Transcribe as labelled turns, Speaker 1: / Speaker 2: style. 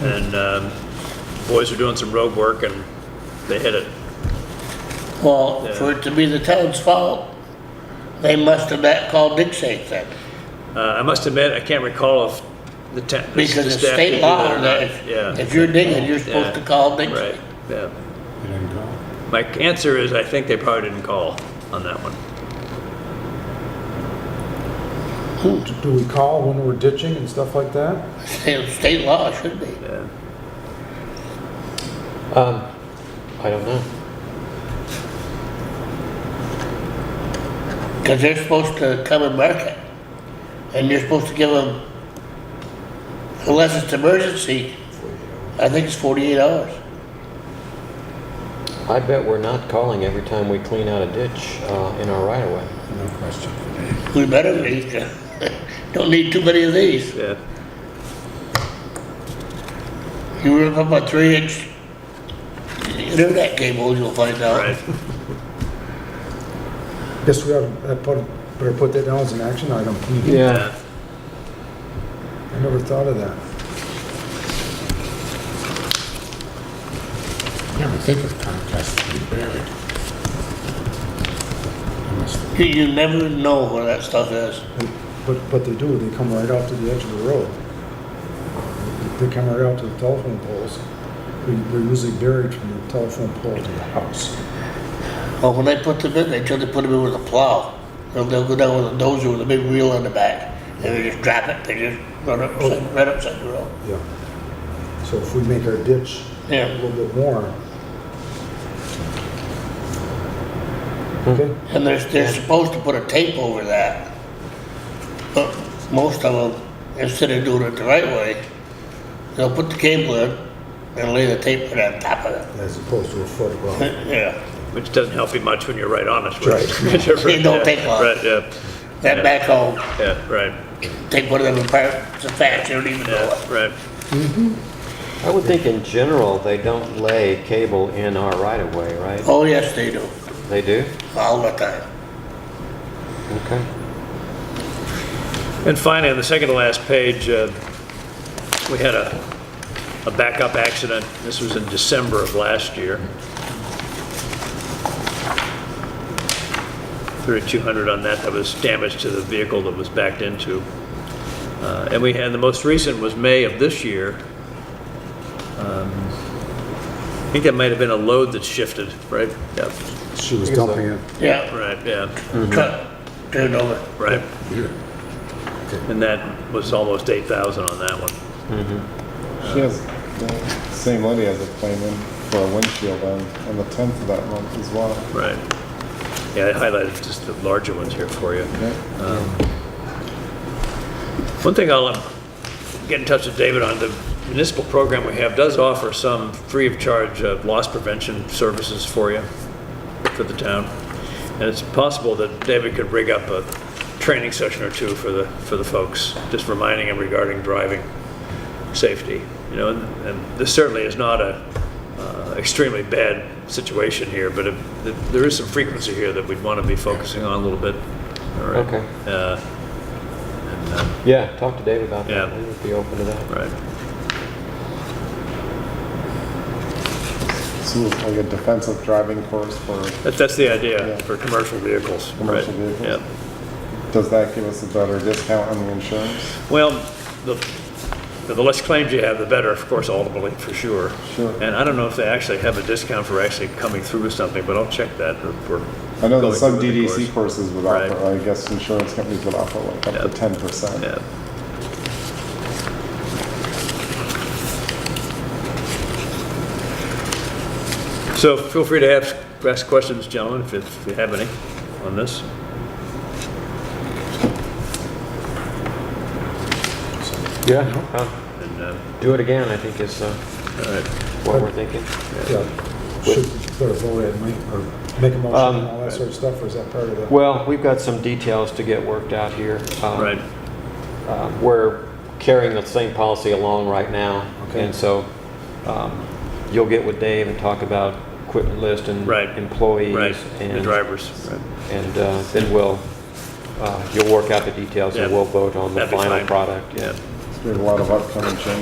Speaker 1: And um, boys were doing some road work and they hit it.
Speaker 2: Well, for it to be the town's fault, they must have not called dig safe then.
Speaker 1: Uh, I must admit, I can't recall if the town.
Speaker 2: Because it's state law, that if, if you're digging, you're supposed to call dig
Speaker 1: Right,
Speaker 2: safe.
Speaker 1: yeah. My answer is, I think they probably didn't call on that one.
Speaker 3: Do we call when we're ditching and stuff like that?
Speaker 2: State, state law it should be.
Speaker 1: Yeah.
Speaker 4: Um, I don't know.
Speaker 2: Cause they're supposed to come and mark it. And you're supposed to give them, unless it's emergency, I think it's forty-eight hours.
Speaker 4: I bet we're not calling every time we clean out a ditch uh, in our right of way.
Speaker 5: No question.
Speaker 2: We better be, don't need too many of these.
Speaker 1: Yeah,
Speaker 2: You rip up a three-inch internet cable, you'll find out.
Speaker 1: right.
Speaker 3: Guess we have, I put, better put that down as an action item.
Speaker 1: Yeah.
Speaker 3: I never thought of that.
Speaker 5: I Never think of Comcast to be buried. Unless the
Speaker 2: You, you never know where that stuff is.
Speaker 3: And- But, but they do, they come right out to the edge of the road. They come right out to the telephone poles. They- They're usually buried from the telephone pole to the house.
Speaker 2: Well, when they put them in, they try to put them in with a plow. They'll, they'll go down with a dozer with a big wheel on the back, and they just drop it, they just run it upside, right upside the road.
Speaker 3: Yeah. So if we make our ditch a
Speaker 2: Yeah,
Speaker 3: little bit more.
Speaker 2: Hmm.
Speaker 3: Okay?
Speaker 2: and they're, they're supposed to put a tape over that. But most of them, instead of doing it the right way, they'll put the cable in and lay the tape right on top of it.
Speaker 3: As opposed to a foot well.
Speaker 2: Yeah,
Speaker 1: Which doesn't help you much when you're right on it.
Speaker 3: Right.
Speaker 1: It
Speaker 2: It don't take long.
Speaker 1: Right, yeah,
Speaker 2: that backhoe,
Speaker 1: yeah, right,
Speaker 2: take one of them apart, so fast, you don't even know it.
Speaker 1: yeah, right.
Speaker 4: I would think in general, they don't lay cable in our right of way, right?
Speaker 2: Oh, yes, they do,
Speaker 4: They do?
Speaker 2: all the time.
Speaker 4: Okay.
Speaker 1: And finally, on the second to last page, uh, we had a, a backup accident. This was in December of last year. 3,200 on that, that was damage to the vehicle that was backed into. Uh, And we had, the most recent was May of this year. Um, I think that might have been a load that shifted, right? Yep,
Speaker 5: She was dumping it.
Speaker 2: Yeah.
Speaker 1: right, yeah,
Speaker 2: truck turned over.
Speaker 1: right.
Speaker 5: here.
Speaker 1: And that was almost 8,000 on that one.
Speaker 6: She has, the same lady has a claim in for a windshield on, on the tenth of that month as well.
Speaker 1: Right. Yeah, I highlighted just the larger ones here for you.
Speaker 6: Yeah.
Speaker 1: Um, One thing I'll um, get in touch with David on, the municipal program we have does offer some free of charge uh, loss prevention services for you, for the town. And it's possible that David could rig up a training session or two for the, for the folks, just reminding them regarding driving safety. You know, and, and this certainly is not a uh, extremely bad situation here, but if, if there is some frequency here that we'd want to be focusing on a little bit. All right.
Speaker 4: Okay.
Speaker 1: Uh, and, uh,
Speaker 4: Yeah, talk to Dave about that.
Speaker 1: Yeah.
Speaker 4: He would be open to that.
Speaker 1: right.
Speaker 6: This is like a defensive driving course for,
Speaker 1: That, that's the idea
Speaker 6: Yeah.
Speaker 1: for commercial vehicles.
Speaker 6: Commercial
Speaker 1: right.
Speaker 6: vehicles. does that give us a better discount on the insurance?
Speaker 1: Yeah. Well, the, the less claims you have, the better, of course, ultimately, for sure.
Speaker 6: Sure.
Speaker 1: And I don't know if they actually have a discount for actually coming through with something, but I'll check that. if we're
Speaker 6: I know
Speaker 1: going
Speaker 6: that some
Speaker 1: through with the course.
Speaker 6: DDC courses would
Speaker 1: Right.
Speaker 6: offer, I guess insurance companies would offer like up
Speaker 1: Yeah.
Speaker 6: to ten percent.
Speaker 1: Yeah. So feel free to ask, ask questions, gentlemen, if if you have any on this.
Speaker 4: Yeah. Uh,
Speaker 1: And, uh,
Speaker 4: Do it again, I think is uh,
Speaker 1: all right,
Speaker 4: what we're thinking.
Speaker 3: Yeah. Should, better vote it, make, or make a motion and all that sort of stuff, or is that part of the?
Speaker 4: Well, we've got some details to get worked out here. Um,
Speaker 1: right,
Speaker 4: uh, We're carrying the same policy along right now.
Speaker 3: Okay.
Speaker 4: And so um, you'll get with Dave and talk about equipment list and
Speaker 1: Right.
Speaker 4: employees.
Speaker 1: right, the
Speaker 4: and-
Speaker 1: drivers, right.
Speaker 4: And uh, then we'll, uh, you'll work out the details and
Speaker 1: Yeah.
Speaker 4: we'll vote on the
Speaker 1: That'd be
Speaker 4: final
Speaker 1: fine.
Speaker 4: product.
Speaker 1: Yeah.
Speaker 6: There's a lot of upcoming changes.